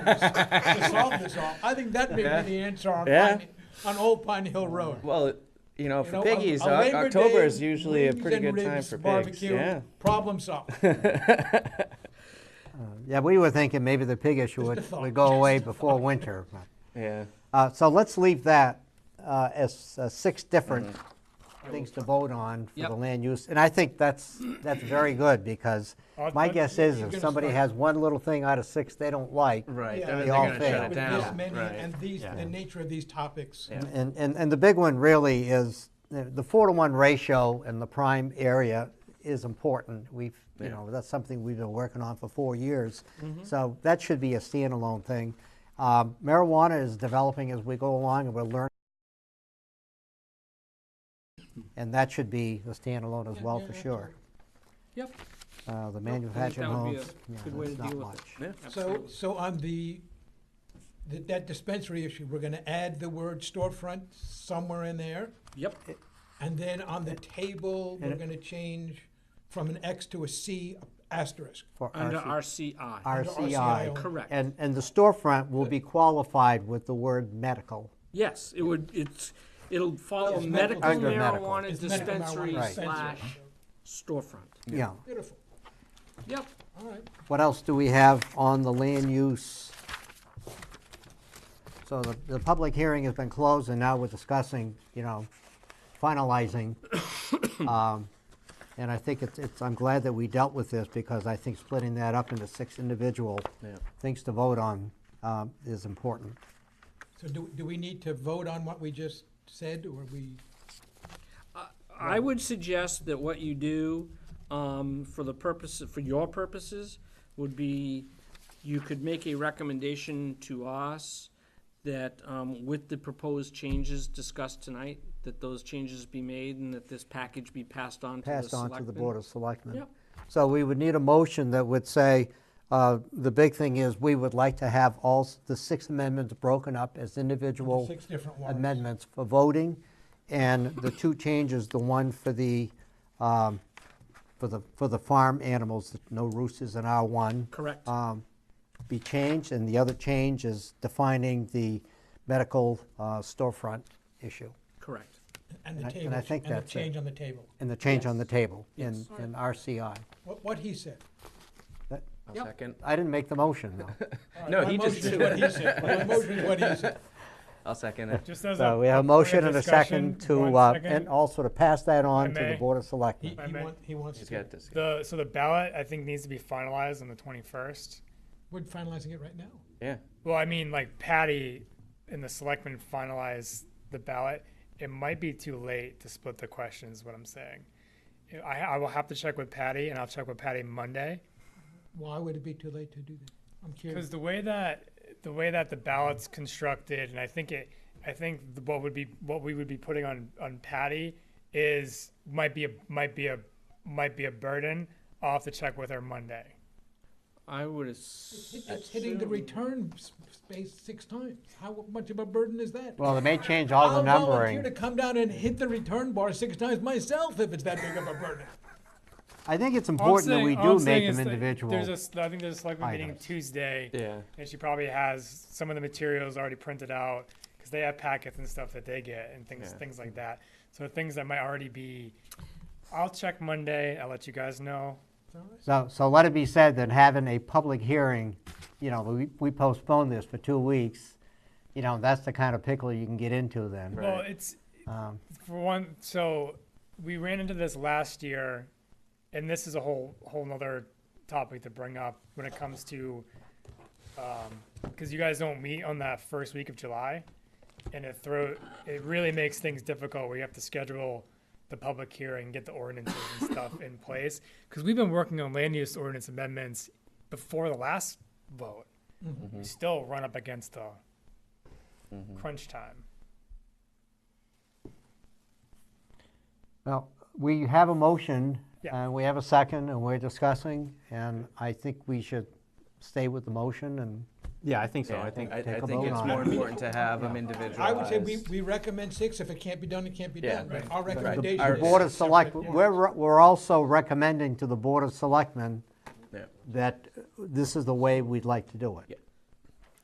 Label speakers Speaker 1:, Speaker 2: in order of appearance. Speaker 1: to solve this all. I think that may
Speaker 2: Yeah.
Speaker 1: be the answer on,
Speaker 2: Yeah.
Speaker 1: Pine- on Old Pine Hill Road.
Speaker 2: Well, you know,
Speaker 1: You
Speaker 2: for
Speaker 1: know, a-
Speaker 2: piggies,
Speaker 1: a
Speaker 2: Oc-
Speaker 1: Labor
Speaker 2: October
Speaker 1: Day
Speaker 2: is usually a
Speaker 1: wings
Speaker 2: pretty
Speaker 1: and
Speaker 2: good time
Speaker 1: ribs
Speaker 2: for pigs.
Speaker 1: barbecue,
Speaker 2: Yeah.
Speaker 1: Problem solved.
Speaker 3: Yeah, we were thinking maybe the pig issue
Speaker 1: Just a
Speaker 3: would,
Speaker 1: thought,
Speaker 3: would go
Speaker 1: just
Speaker 3: away
Speaker 1: a
Speaker 3: before winter.
Speaker 2: Yeah.
Speaker 3: Uh, so let's leave that uh, as uh, six different things to vote on for
Speaker 4: Yep.
Speaker 3: the land use. And I think that's, that's very good because
Speaker 1: Odd
Speaker 3: my
Speaker 1: one.
Speaker 3: guess is
Speaker 1: You're
Speaker 3: if
Speaker 1: gonna
Speaker 3: somebody
Speaker 1: start-
Speaker 3: has one little thing out of six they don't like,
Speaker 4: Mm-hmm.
Speaker 2: Right.
Speaker 1: Yeah.
Speaker 2: They're,
Speaker 3: They
Speaker 2: they're
Speaker 3: all
Speaker 2: gonna
Speaker 3: fail.
Speaker 2: shut it
Speaker 1: With this
Speaker 2: down.
Speaker 1: many
Speaker 2: Right.
Speaker 1: and these,
Speaker 3: Yeah.
Speaker 1: the nature of these topics.
Speaker 2: Yeah.
Speaker 3: And, and, and the big one really is, the the four to one ratio in the prime area is important. We've, you
Speaker 2: Yeah.
Speaker 3: know, that's something we've been working on for four years.
Speaker 4: Mm-hmm.
Speaker 3: So that should be a standalone thing. Um, Marijuana is developing as we go along and we're learning. And that should be a standalone as
Speaker 4: Yeah,
Speaker 3: well,
Speaker 4: yeah,
Speaker 3: for
Speaker 4: yeah,
Speaker 3: sure.
Speaker 4: Yep.
Speaker 3: Uh, The
Speaker 4: I think
Speaker 3: manufactured
Speaker 4: that would be
Speaker 3: homes,
Speaker 4: a
Speaker 3: yeah,
Speaker 4: good way
Speaker 3: there's
Speaker 4: to
Speaker 3: not
Speaker 4: deal with
Speaker 3: much.
Speaker 2: Yeah.
Speaker 1: So, so on the, th- that dispensary issue, we're gonna add the word storefront somewhere in there.
Speaker 4: Yep,
Speaker 1: And then on the table, we're
Speaker 3: and-
Speaker 1: gonna change from an X to a C asterisk.
Speaker 3: for
Speaker 4: under
Speaker 3: RC
Speaker 4: RCI.
Speaker 1: R-
Speaker 3: RCI.
Speaker 4: Correct.
Speaker 3: And, and the storefront will be qualified with the word medical.
Speaker 4: Yes, it would, it's, it'll follow
Speaker 1: It's
Speaker 4: medical
Speaker 1: medical
Speaker 3: Under medical.
Speaker 4: marijuana
Speaker 1: It's medical marijuana
Speaker 4: dispensary
Speaker 1: dispensary.
Speaker 4: slash storefront.
Speaker 3: Yeah.
Speaker 1: Beautiful,
Speaker 4: Yep,
Speaker 1: all right.
Speaker 3: What else do we have on the land use? So the, the public hearing has been closed, and now we're discussing, you know, finalizing. Um, And I think it's, it's, I'm glad that we dealt with this, because I think splitting that up into six individual
Speaker 2: Yeah.
Speaker 3: things to vote on um, is important.
Speaker 1: So do, do we need to vote on what we just said, or we?
Speaker 4: I would suggest that what you do, um, for the purpose, for your purposes, would be, you could make a recommendation to us that, um, with the proposed changes discussed tonight, that those changes be made and that this package be passed on to the
Speaker 3: Passed on to the
Speaker 4: selectmen.
Speaker 3: Board of Selectmen.
Speaker 4: Yep.
Speaker 3: So we would need a motion that would say, uh, the big thing is, we would like to have all s- the six amendments broken up as individual
Speaker 1: Six different warrants.
Speaker 3: amendments for voting, and the two changes, the one for the, um, for the, for the farm animals, no roosters in R1,
Speaker 4: Correct.
Speaker 3: um, be changed, and the other change is defining the medical uh, storefront issue,
Speaker 4: Correct.
Speaker 1: And
Speaker 3: And I-
Speaker 1: the
Speaker 3: and
Speaker 1: table,
Speaker 3: I
Speaker 1: and
Speaker 3: think
Speaker 1: the
Speaker 3: that's it.
Speaker 1: change on the table,
Speaker 3: and the change on the table in,
Speaker 4: Yes.
Speaker 3: in RCI.
Speaker 1: what, what he said.
Speaker 3: That-
Speaker 2: I'll
Speaker 4: Yep.
Speaker 2: second.
Speaker 3: I didn't make the motion, though.
Speaker 1: All right,
Speaker 2: No,
Speaker 1: my
Speaker 2: he just
Speaker 1: motion is
Speaker 2: did.
Speaker 1: what he said. My motion is what he said.
Speaker 2: I'll second it.
Speaker 5: Just as
Speaker 3: So
Speaker 5: a.
Speaker 3: we have a motion and a second to, uh, and also to pass that on
Speaker 5: If
Speaker 3: to
Speaker 5: I
Speaker 3: the
Speaker 5: may.
Speaker 3: Board of
Speaker 1: He,
Speaker 3: Selectmen.
Speaker 5: I
Speaker 1: he
Speaker 5: may-
Speaker 1: want- he wants
Speaker 2: He's
Speaker 1: to,
Speaker 2: got this.
Speaker 5: The, so the ballot, I think, needs to be finalized on the twenty-first.
Speaker 1: we're finalizing it right now.
Speaker 2: Yeah.
Speaker 5: Well, I mean, like Patty and the selectmen finalize the ballot. It might be too late to split the questions, what I'm saying. I, I will have to check with Patty and I'll check with Patty Monday.
Speaker 1: Why would it be too late to do that? I'm
Speaker 5: Because
Speaker 1: curious.
Speaker 5: the way that the way that the ballot's constructed, and I think it, I think the- what would be what we would be putting on on Patty is might be a might be a might be a burden. I'll have to check with her Monday.
Speaker 4: I would
Speaker 1: It-
Speaker 4: assume.
Speaker 1: It's hitting the return s- space six times. How much of a burden is that?
Speaker 3: Well, they may change all the
Speaker 1: I'll volunteer to
Speaker 3: numbering.
Speaker 1: come down and hit the return bar six times myself if it's that big of a burden.
Speaker 3: I think it's
Speaker 5: All I'm
Speaker 3: important that
Speaker 5: saying-
Speaker 3: we
Speaker 5: all I'm
Speaker 3: do
Speaker 5: saying
Speaker 3: make them
Speaker 5: is that
Speaker 3: individual.
Speaker 5: There's a, s- I think there's a selectman meeting
Speaker 3: items.
Speaker 5: Tuesday,
Speaker 2: Yeah.
Speaker 5: and she probably has some of the materials already printed out because they have packets and stuff that they get and things
Speaker 2: Yeah.
Speaker 5: things like that. So things that might already be. I'll check Monday. I'll let you guys know.
Speaker 3: So, so let it be said that having a public hearing, you know, we we postponed this for two weeks, you know, that's the kind of pickle you can get into then.
Speaker 5: Well,
Speaker 2: Right.
Speaker 5: it's
Speaker 3: Um,
Speaker 5: for one. So we ran into this last year, and this is a whole whole nother topic to bring up when it comes to, because you guys don't meet on that first week of July, and it throw it really makes things difficult. where you have to schedule the public hearing, get the ordinances and stuff in place, because we've been working on land use ordinance amendments before the last vote. We still run up against the crunch time.
Speaker 3: Well, we have a motion,
Speaker 5: Yeah.
Speaker 3: and we have a second, and we're discussing, and I think we should stay with the motion and
Speaker 6: Yeah, I think so.
Speaker 2: Yeah, I
Speaker 6: I think
Speaker 2: think I, I
Speaker 3: Take a
Speaker 2: think
Speaker 3: vote
Speaker 2: it's
Speaker 3: on
Speaker 2: more
Speaker 3: it.
Speaker 2: important to have them individualized.
Speaker 1: I would say we, we recommend six. If it can't be done, it can't be
Speaker 2: Yeah,
Speaker 1: done.
Speaker 2: right.
Speaker 1: Our
Speaker 2: Right. The-
Speaker 1: recommendation.
Speaker 2: our
Speaker 3: The
Speaker 1: is
Speaker 3: Board of
Speaker 1: separate
Speaker 3: Select,
Speaker 1: warrants.
Speaker 3: we're, re- we're also recommending to the Board of Selectmen
Speaker 2: Yeah.
Speaker 3: that this is the way we'd like to do
Speaker 2: Yeah.
Speaker 3: it.